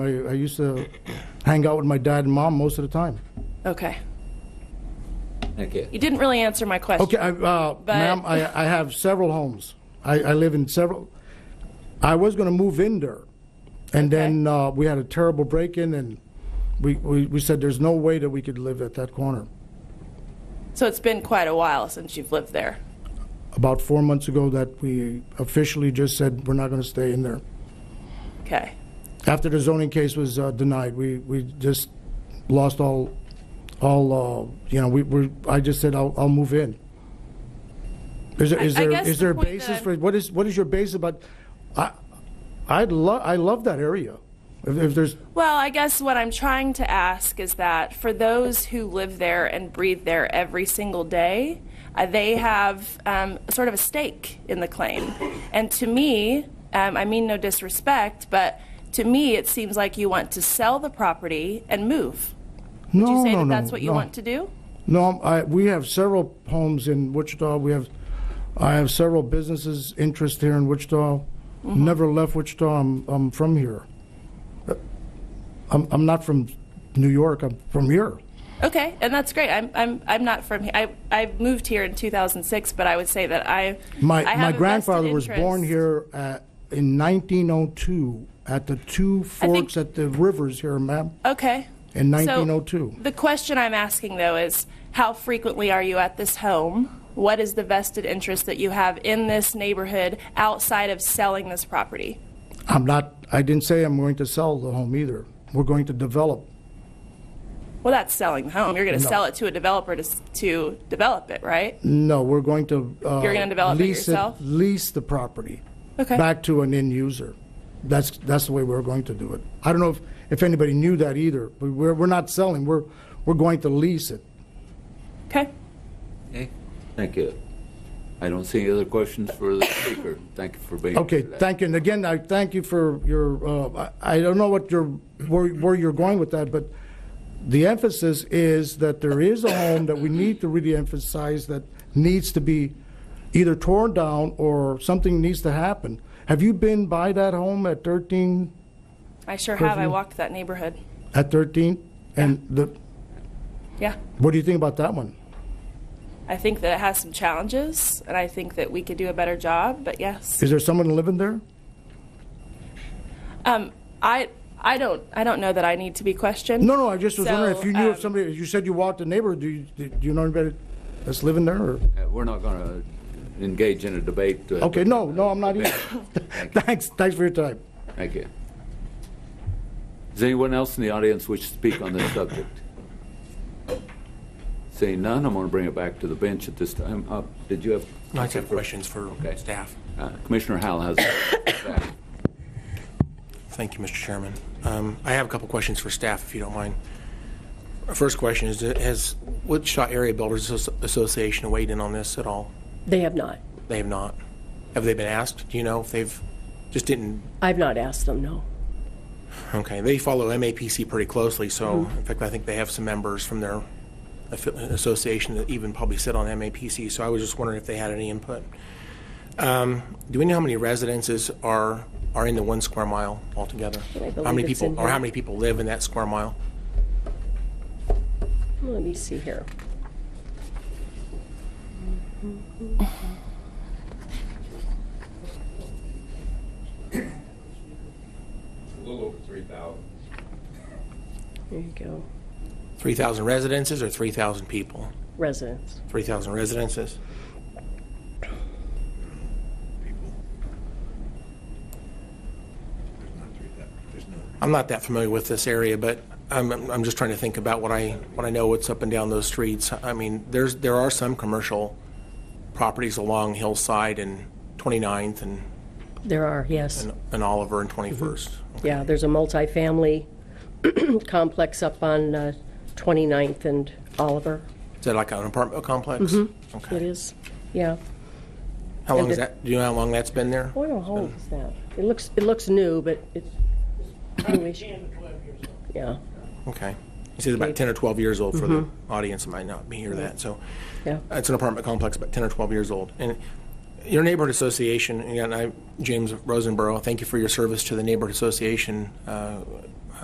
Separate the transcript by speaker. Speaker 1: I, I used to hang out with my dad and mom most of the time.
Speaker 2: Okay.
Speaker 3: Okay.
Speaker 2: You didn't really answer my question.
Speaker 1: Okay, I, uh, ma'am, I, I have several homes. I, I live in several. I was going to move in there, and then uh, we had a terrible break-in, and we, we, we said there's no way that we could live at that corner.
Speaker 2: So it's been quite a while since you've lived there.
Speaker 1: About four months ago, that we officially just said we're not going to stay in there.
Speaker 2: Okay.
Speaker 1: After the zoning case was uh, denied, we, we just lost all, all, uh, you know, we were, I just said, I'll, I'll move in. Is there, is
Speaker 2: I
Speaker 1: there,
Speaker 2: guess
Speaker 1: is
Speaker 2: the
Speaker 1: there a
Speaker 2: point that
Speaker 1: basis
Speaker 2: I'm-
Speaker 1: for, what is, what is your base about? I, I'd love, I love that area. If, if there's,
Speaker 2: Well, I guess what I'm trying to ask is that for those who live there and breathe there every single day, uh, they have um, sort of a stake in the claim. And to me, um, I mean no disrespect, but to me, it seems like you want to sell the property and move.
Speaker 1: no,
Speaker 2: Do you say
Speaker 1: no,
Speaker 2: that
Speaker 1: no,
Speaker 2: that's what you
Speaker 1: no.
Speaker 2: want to do?
Speaker 1: No, I, we have several homes in Wichita. We have, I have several businesses interest here in Wichita.
Speaker 2: Mm-hmm.
Speaker 1: Never left Wichita. I'm, I'm from here. Uh, I'm, I'm not from New York. I'm from here.
Speaker 2: Okay, and that's great. I'm, I'm, I'm not from here. I, I moved here in 2006, but I would say that I.
Speaker 1: My,
Speaker 2: I have
Speaker 1: my
Speaker 2: a vested
Speaker 1: grandfather was born
Speaker 2: interest.
Speaker 1: here at, in 1902 at the two
Speaker 2: think-
Speaker 1: forks at the rivers here, ma'am,
Speaker 2: Okay.
Speaker 1: in
Speaker 2: So-
Speaker 1: 1902.
Speaker 2: The question I'm asking, though, is how frequently are you at this home? What is the vested interest that you have in this neighborhood outside of selling this property?
Speaker 1: I'm not, I didn't say I'm going to sell the home either. We're going to develop.
Speaker 2: Well, that's selling the home. You're going to
Speaker 1: No.
Speaker 2: sell it to a developer to, s- to develop it, right?
Speaker 1: No, we're going to. uh,
Speaker 2: You're gonna develop it
Speaker 1: lease
Speaker 2: yourself?
Speaker 1: Lease the property.
Speaker 2: Okay.
Speaker 1: Back to an end user. That's, that's the way we're going to do it. I don't know if, if anybody knew that either, but we're, we're not selling, we're, we're going to lease it.
Speaker 2: Okay.
Speaker 3: Okay. Thank you. I don't see any other questions for the speaker. Thank you for being here
Speaker 1: Okay,
Speaker 3: today.
Speaker 1: thank you, and again, I thank you for your, uh, I I don't know what your, where, where you're going with that, but the emphasis is that there is a home that we need to really emphasize that needs to be either torn down or something needs to happen. Have you been by that home at 13
Speaker 2: I sure have. I
Speaker 1: Perfect.
Speaker 2: walked that neighborhood.
Speaker 1: at 13? And the,
Speaker 2: Yeah.
Speaker 1: what do you think about that one?
Speaker 2: I think that it has some challenges, and I think that we could do a better job, but yes.
Speaker 1: Is there someone living there?
Speaker 2: Um, I, I, don't, I don't know that I need to be questioned.
Speaker 1: No, no, I just was wondering
Speaker 2: So,
Speaker 1: if you knew
Speaker 2: um,
Speaker 1: of somebody, you said you walked the neighborhood, do you, do you know anybody that's living there, or?
Speaker 3: Uh, We're not going to engage in a debate. uh,
Speaker 1: Okay, no, no, I'm not either. Thanks, thanks for your time.
Speaker 3: Thank you. Is anyone else in the audience wish to speak on this subject? Seeing none, I'm going to bring it back to the bench at this time. Uh, Did you have?
Speaker 4: I have questions for staff.
Speaker 3: Uh, Commissioner Howell has.
Speaker 4: Thank you, Mr. Chairman. Um, I have a couple questions for staff, if you don't mind. Our First question is, uh, has Wichita Area Builders Asso- Association weighed in on this at all?
Speaker 5: They have not.
Speaker 4: They have not. Have they been asked? Do you know if they've, just didn't,
Speaker 5: I've not asked them, no.
Speaker 4: okay, they follow MAPC pretty closely, so
Speaker 5: Mm-hmm.
Speaker 4: in fact, I think they have some members from their affi- association that even probably sit on MAPC, so I was just wondering if they had any input. Um, Do we know how many residences are, are in the one square mile altogether?
Speaker 5: believe
Speaker 4: How many
Speaker 5: it's
Speaker 4: people,
Speaker 5: in
Speaker 4: or how
Speaker 5: here.
Speaker 4: many people live in that square mile?
Speaker 5: Let me see here.
Speaker 6: A little over three thousand.
Speaker 5: There you go.
Speaker 4: 3,000 residences or 3,000 people?
Speaker 5: Residents.
Speaker 4: 3,000 residences. I'm not that familiar with this area, but I'm, I'm I'm just trying to think about what I, what I know, what's up and down those streets. I mean, there's, there are some commercial properties along Hillside and 29th and,
Speaker 5: There are, yes.
Speaker 4: and- and Oliver and 21st.
Speaker 5: Yeah, there's a multifamily complex up on uh, 29th and Oliver,
Speaker 4: Is that like an apartment complex?
Speaker 5: Mm-hmm. it
Speaker 4: Okay.
Speaker 5: is. Yeah.
Speaker 4: How long
Speaker 5: And
Speaker 4: is
Speaker 5: the-
Speaker 4: that, do you know how long that's been there?
Speaker 5: What home is that? It looks, it looks new, but it's newish. Yeah,
Speaker 4: Okay. You said about 10 or 12 years old for the audience, that might not be hear that, so.
Speaker 5: yeah.
Speaker 4: It's an apartment complex, about 10 or 12 years old. And your neighborhood association, again, I, James Rosenborough, thank you for your service to the neighborhood association uh,